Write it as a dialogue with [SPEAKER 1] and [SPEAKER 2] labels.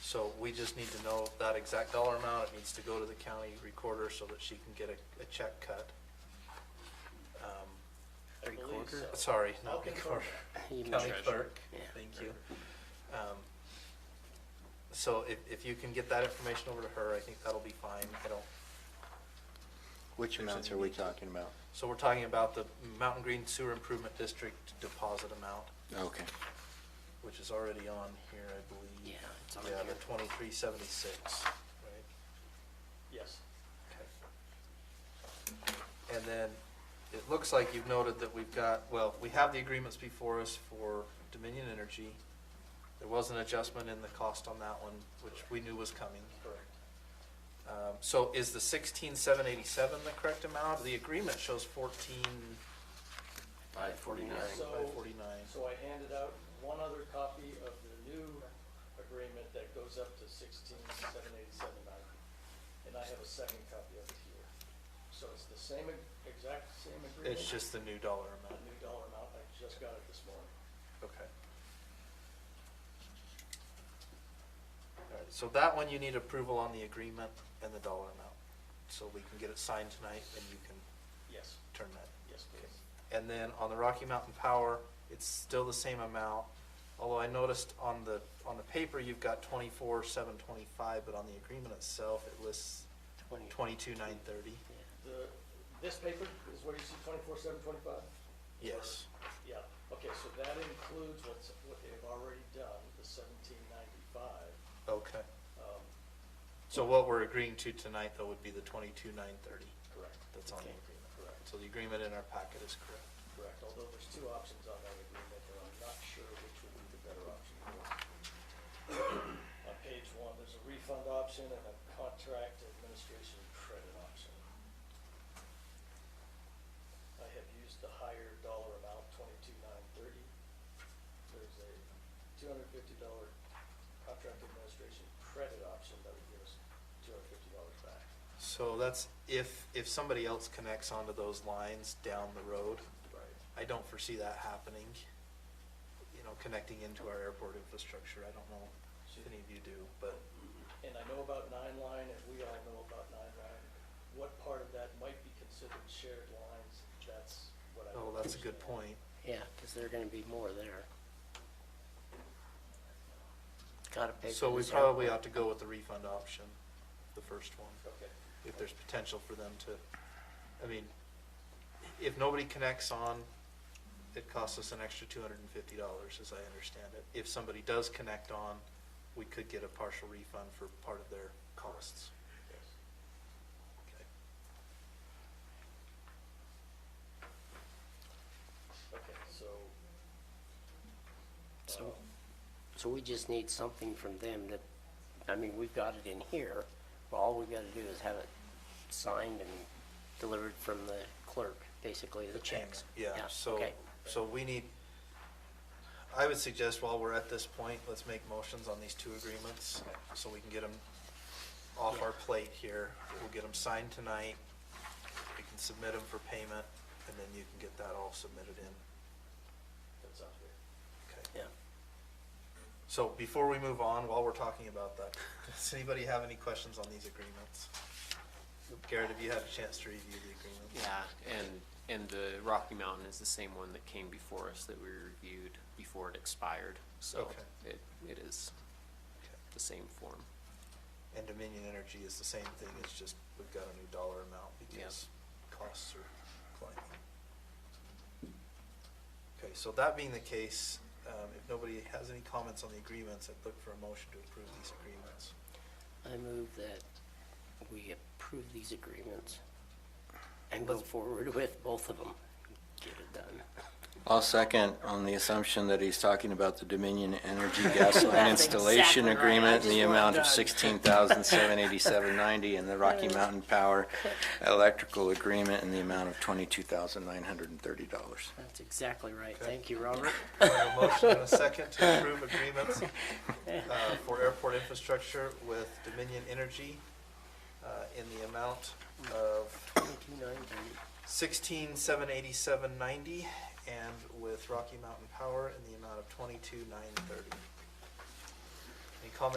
[SPEAKER 1] So we just need to know that exact dollar amount. It needs to go to the county recorder so that she can get a, a check cut. Um,
[SPEAKER 2] I believe
[SPEAKER 3] Recorder?
[SPEAKER 2] so.
[SPEAKER 1] Sorry,
[SPEAKER 2] I'll
[SPEAKER 1] not
[SPEAKER 2] confirm
[SPEAKER 1] recorder,
[SPEAKER 2] that.
[SPEAKER 3] You know,
[SPEAKER 1] county clerk,
[SPEAKER 3] Yeah.
[SPEAKER 1] thank you. Um, So if, if you can get that information over to her, I think that'll be fine. I don't,
[SPEAKER 4] Which
[SPEAKER 1] There's
[SPEAKER 4] amounts
[SPEAKER 1] a
[SPEAKER 4] are we
[SPEAKER 1] need.
[SPEAKER 4] talking about?
[SPEAKER 1] so we're talking about the Mountain Green Sewer Improvement District deposit amount,
[SPEAKER 4] Okay.
[SPEAKER 1] which is already on here, I believe.
[SPEAKER 3] Yeah, it's on
[SPEAKER 1] Yeah,
[SPEAKER 3] here.
[SPEAKER 1] the twenty-three seventy-six, right?
[SPEAKER 2] Yes.
[SPEAKER 1] Okay. And then, it looks like you've noted that we've got, well, we have the agreements before us for Dominion Energy. There was an adjustment in the cost on that one, which we knew was coming.
[SPEAKER 2] Correct.
[SPEAKER 1] Um, so is the sixteen seven eighty-seven the correct amount? The agreement shows fourteen
[SPEAKER 3] Five forty-nine.
[SPEAKER 2] So-
[SPEAKER 1] five forty-nine.
[SPEAKER 2] So I handed out one other copy of the new agreement that goes up to sixteen seven eighty-seven ninety. And I have a second copy of it here. So it's the same, ag- exact same agreement.
[SPEAKER 1] It's just the new dollar
[SPEAKER 2] A
[SPEAKER 1] amount,
[SPEAKER 2] new dollar amount, I just got it this morning.
[SPEAKER 1] okay. Alright, so that one you need approval on the agreement and the dollar amount, so we can get it signed tonight and you can
[SPEAKER 2] Yes,
[SPEAKER 1] turn that.
[SPEAKER 2] yes, please.
[SPEAKER 1] And then on the Rocky Mountain Power, it's still the same amount, although I noticed on the, on the paper, you've got twenty-four, seven twenty-five, but on the agreement itself, it lists
[SPEAKER 3] Twenty.
[SPEAKER 1] twenty-two, nine thirty.
[SPEAKER 2] The, this paper is where you see twenty-four seven twenty-five?
[SPEAKER 1] Yes,
[SPEAKER 2] Yeah, okay, so that includes what's, what they've already done, the seventeen ninety-five.
[SPEAKER 1] okay.
[SPEAKER 2] Um,
[SPEAKER 1] So what we're agreeing to tonight, though, would be the twenty-two, nine thirty
[SPEAKER 2] correct,
[SPEAKER 1] that's on the agreement.
[SPEAKER 2] correct.
[SPEAKER 1] So the agreement in our packet is correct.
[SPEAKER 2] Correct, although there's two options on that agreement, and I'm not sure which would be the better option. On page one, there's a refund option and a contract administration credit option. I have used the higher dollar amount, twenty-two nine thirty. There's a two hundred fifty dollar contract administration credit option that would give us two hundred fifty dollars back.
[SPEAKER 1] So that's if, if somebody else connects onto those lines down the road,
[SPEAKER 2] Right.
[SPEAKER 1] I don't foresee that happening, you know, connecting into our airport infrastructure. I don't know if any of you do, but
[SPEAKER 2] and I know about nine line, and we all know about nine line, what part of that might be considered shared lines, that's what I.
[SPEAKER 1] oh,
[SPEAKER 2] don't
[SPEAKER 1] that's a good
[SPEAKER 2] understand.
[SPEAKER 1] point.
[SPEAKER 3] Yeah, because there are gonna be more there. Gotta pay for
[SPEAKER 1] So we
[SPEAKER 3] this
[SPEAKER 1] probably ought
[SPEAKER 3] airport.
[SPEAKER 1] to go with the refund option, the first one,
[SPEAKER 2] Okay,
[SPEAKER 1] if there's potential for them to, I mean, if nobody connects on, it costs us an extra two hundred and fifty dollars, as I understand it. If somebody does connect on, we could get a partial refund for part of their costs.
[SPEAKER 2] yes.
[SPEAKER 1] Okay.
[SPEAKER 2] Okay, so.
[SPEAKER 3] So-
[SPEAKER 2] um,
[SPEAKER 3] So we just need something from them that, I mean, we've got it in here, but all we've gotta do is have it signed and delivered from the clerk, basically, the checks.
[SPEAKER 1] Yeah, so,
[SPEAKER 3] okay.
[SPEAKER 1] so we need, I would suggest while we're at this point, let's make motions on these two agreements, so we can get them off our plate here. We'll get them signed tonight, we can submit them for payment, and then you can get that all submitted in.
[SPEAKER 2] That sounds good.
[SPEAKER 1] Okay.
[SPEAKER 3] Yeah,
[SPEAKER 1] So before we move on, while we're talking about that, does anybody have any questions on these agreements? Garrett, have you had a chance to review the agreements?
[SPEAKER 5] Yeah, and, and the Rocky Mountain is the same one that came before us that we reviewed before it expired, so
[SPEAKER 1] Okay.
[SPEAKER 5] it, it is
[SPEAKER 1] Okay.
[SPEAKER 5] the same form.
[SPEAKER 1] And Dominion Energy is the same thing, it's just we've got a new dollar amount because costs are climbing. Okay, so that being the case, um, if nobody has any comments on the agreements, I'd look for a motion to approve these agreements.
[SPEAKER 3] I move that we approve these agreements and go forward with both of them. Get it done.
[SPEAKER 4] I'll second on the assumption that he's talking about the Dominion Energy Gas Line
[SPEAKER 3] That's
[SPEAKER 4] Installation
[SPEAKER 3] exactly right. I
[SPEAKER 4] Agreement in the
[SPEAKER 3] just want it
[SPEAKER 4] amount
[SPEAKER 3] done.
[SPEAKER 4] of sixteen thousand seven eighty-seven ninety and the Rocky Mountain Power Electrical Agreement in the amount of twenty-two thousand nine hundred and thirty dollars.
[SPEAKER 3] That's exactly right.
[SPEAKER 1] Okay.
[SPEAKER 3] Thank you, Robert.
[SPEAKER 1] I have A motion and a second to approve agreements uh, for airport infrastructure with Dominion Energy uh, in the amount of
[SPEAKER 3] Twenty-nine thirty.
[SPEAKER 1] sixteen seven eighty-seven ninety and with Rocky Mountain Power in the amount of twenty-two nine thirty. Any comments